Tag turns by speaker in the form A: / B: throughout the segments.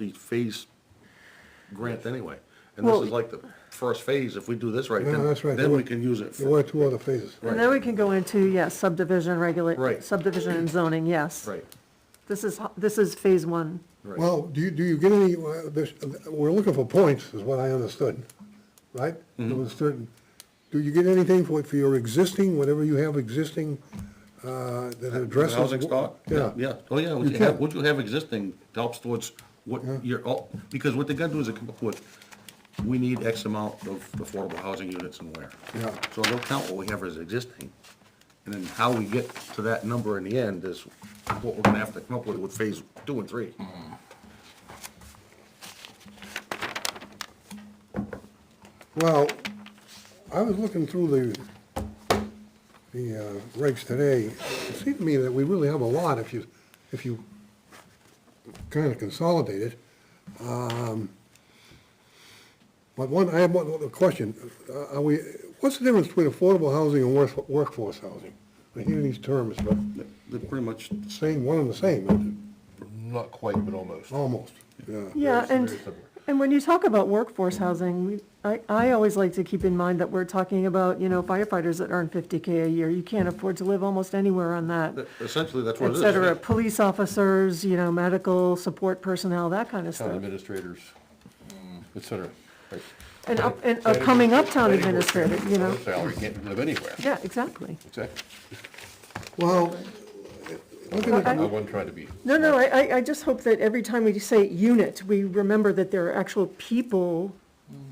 A: multi-phase grant anyway. And this
B: Well-
A: is like the first phase, if we do this right,
C: No,
A: then,
C: that's right.
A: then
C: There were-
A: we can use it.
C: There
A: for-
C: were two other phases.
B: And then we can go into, yes, subdivision regula,
A: Right.
B: subdivision and zoning, yes.
A: Right,
B: This is, ho- this is phase one.
A: right.
C: Well, do you, do you get any, uh, this- we're looking for points, is what I understood, right?
A: Mm-hmm.
C: There was certain, do you get anything for, for your existing, whatever you have existing, uh, that addresses?
A: Housing stock?
C: Yeah.
A: Yeah, oh yeah, what
C: You
A: you have,
C: can.
A: what you have existing helps towards what you're, oh, because what they're gonna do is they come up with, we need X amount of affordable housing units and where.
C: Yeah.
A: So they'll count what we have as existing, and then how we get to that number in the end is what we're gonna have to come up with with phase two and three.
C: Well, I was looking through the, the uh, regs today. It seemed to me that we really have a lot if you, if you kind of consolidate it. Um, But one, I have one other question. Uh, Are we, what's the difference between affordable housing and work- workforce housing? I hear these terms, but
A: They're pretty much,
C: same, one and the same, isn't
D: Mm-hmm. Not quite, but almost.
C: it? almost, yeah.
B: Yeah,
D: Very-
B: and,
D: very similar.
B: and when you talk about workforce housing, we- I, I always like to keep in mind that we're talking about, you know, firefighters that earn fifty K a year. You can't afford to live almost anywhere on that,
A: essentially, that's what it
B: et
A: is.
B: cetera. Police officers, you know, medical support personnel, that kind of
D: Town
B: stuff.
D: administrators, mm, et cetera. Right.
B: And up, and
D: Planning
B: upcoming
D: board-
B: uptown
D: planning board
B: administrator,
D: can't
B: you know,
D: afford a Salary, can't live anywhere.
B: yeah, exactly.
D: Exactly.
C: Well, looking at,
D: I wasn't trying to be,
B: No, no, I, I, I just hope that every time we say unit, we remember that there are actual people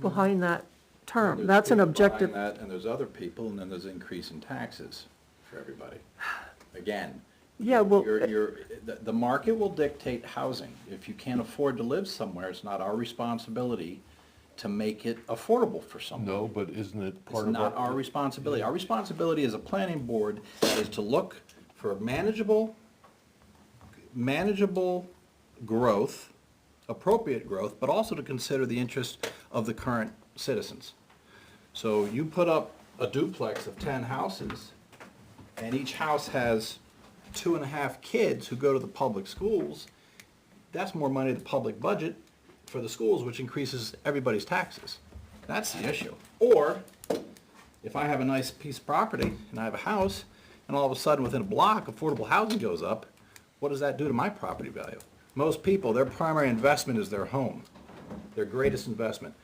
B: behind that term.
E: There's
B: That's an
E: people
B: objective.
E: behind that, And there's other people, and then there's increase in taxes for everybody. Again.
B: Yeah, well, eh,
E: You're, you're, the, the market will dictate housing. If you can't afford to live somewhere, it's not our responsibility to make it affordable for someone.
D: no, but isn't it
E: It's
D: part of
E: not our
D: our?
E: responsibility. Our responsibility as a planning board is to look for manageable, manageable growth, appropriate growth, but also to consider the interest of the current citizens. So you put up a duplex of ten houses, and each house has two and a half kids who go to the public schools, that's more money to the public budget for the schools, which increases everybody's taxes. That's the issue. Or, if I have a nice piece of property and I have a house, and all of a sudden, within a block, affordable housing goes up, what does that do to my property value? Most people, their primary investment is their home, their greatest investment.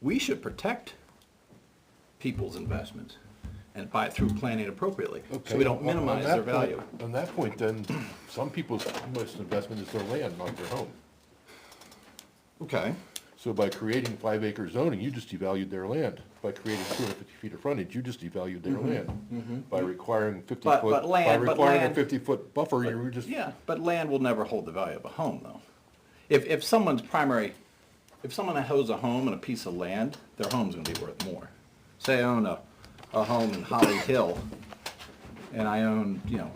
E: We should protect people's investments and buy through planning appropriately, so we
D: Okay,
E: don't
D: on- on
E: minimize
D: that
E: their
D: point-
E: value.
D: On that point, then, some people's most investment is their land, not their home.
E: Okay.
D: So by creating five acre zoning, you just devalued their land. By creating two hundred fifty feet of frontage, you just devalued their land. By requiring
E: Mm-hmm,
D: fifty
E: But-
D: foot.
E: but land-
D: By
E: but
D: requiring a
E: land-
D: fifty foot buffer, you were just.
E: Yeah, but land will never hold the value of a home, though. If, if someone's primary, if someone owns a home and a piece of land, their home's gonna be worth more. Say I own a, a home in Holly Hill, and I own, you know,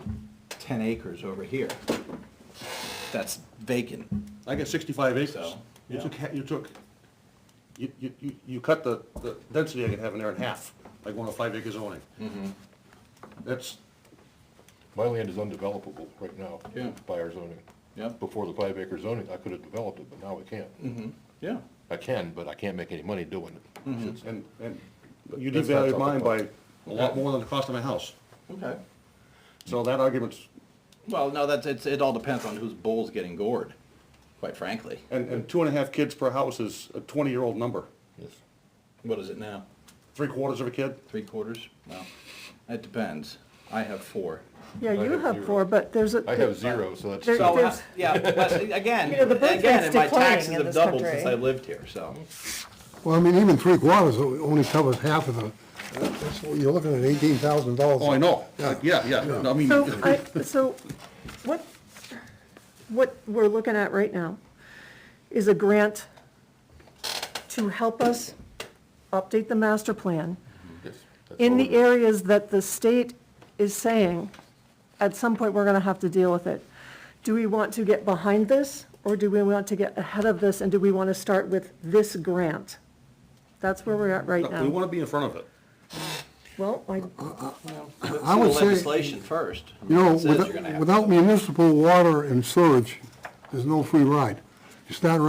E: ten acres over here. That's vacant.
A: I got sixty-five acres.
E: So,
A: You
E: yeah.
A: took, ha- you took, you, you, you- you cut the, the density I could have in there in half, like one of five acre zoning.
E: Mm-hmm.
A: That's,
D: My land is undevelopable right now.
E: Yeah.
D: By our zoning.
E: Yeah. Mm-hmm.
D: Before the five acre zoning, I could have developed it, but now I can't.
E: Yeah.
D: I can, but I can't make any money doing
E: Mm-hmm.
D: it.
A: and, and you
D: That's- that's
A: devalued
D: all
A: mine by
D: the
A: a lot more than the cost of my house.
E: Okay.
A: So that argument's,
E: Well, no, that's, it's, it all depends on whose bull's getting gored, quite frankly.
A: and, and two and a half kids per house is a twenty-year-old number.
D: Yes.
E: What is it now?
A: Three quarters of a kid,
E: Three quarters? Well, it depends. I have four.
B: Yeah,
D: I
B: you
D: have
B: have
D: zero.
B: four, but there's a.
D: I have zero, so that's.
B: There-
D: two.
E: So, uh,
B: There's-
E: yeah, but again,
B: You know, the birth
E: again, and
B: rate's
E: my
B: declining
E: taxes
B: in
E: have
B: this
E: doubled
B: country.
E: since I lived here, so.
C: well, I mean, even three quarters only covers half of the, that's- you're looking at eighteen thousand dollars.
A: Oh, I know, yeah, yeah, No, I mean,
B: So I, so what, what we're looking at right now is a grant to help us update the master plan
D: Yes, that's
B: in
D: all
B: the
D: it is.
B: areas that the state is saying, at some point, we're gonna have to deal with it. Do we want to get behind this, or do we want to get ahead of this, and do we wanna start with this grant? That's where we're at right
A: we
B: now.
A: wanna be in front of it.
B: Well, I,
E: Let's
C: I
E: do the
C: would say-
E: legislation first. I mean,
C: You know,
E: it says you're gonna have
C: without
E: to.
C: without municipal water and sewage, there's no free ride. You start